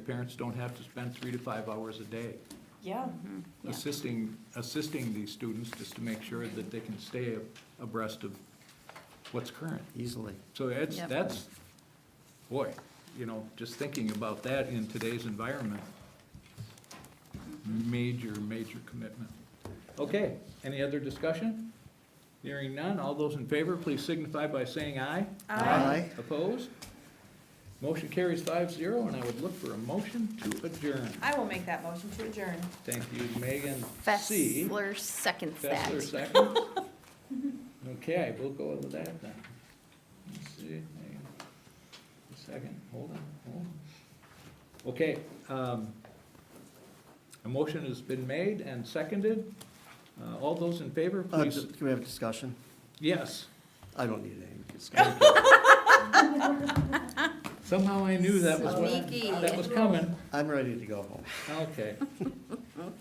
parents don't have to spend three to five hours a day Yeah, Yeah. assisting, assisting these students just to make sure that they can stay abreast of what's current. easily. So that's, Yep. that's, boy, you know, just thinking about that in today's environment, major, major commitment. Okay, any other discussion? Hearing none, all those in favor, please signify by saying aye. Aye. Opposed? Motion carries five zero, and I would look for a motion to adjourn. I will make that motion to adjourn. Thank you, Megan C. Fessler seconds that. Fessler second. Okay, we'll go with that then. Let's see, hang on. A second, hold on, hold on. Okay, um, a motion has been made and seconded. Uh, all those in favor, Uh, please, just- Can we have a discussion? yes. I don't need any discussion. Somehow I knew that was Sneaky. what, that was coming. I'm ready to go home. Okay.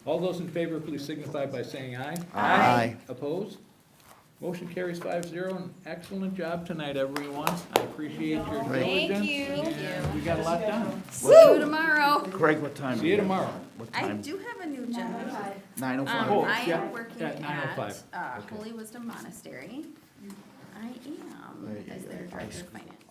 All those in favor, please signify by saying aye. Aye. Opposed? Motion carries five zero, and excellent job tonight, everyone. I appreciate your diligence. Great. Thank you. and We got a lot done. See you tomorrow. Greg, what time? See you tomorrow. What I time? do have a new job. Nine oh Um, Oh, five. I yeah, am working at 9:05. at, uh, Okay. Holy Wisdom Monastery. I There am, you as go. their director of finance.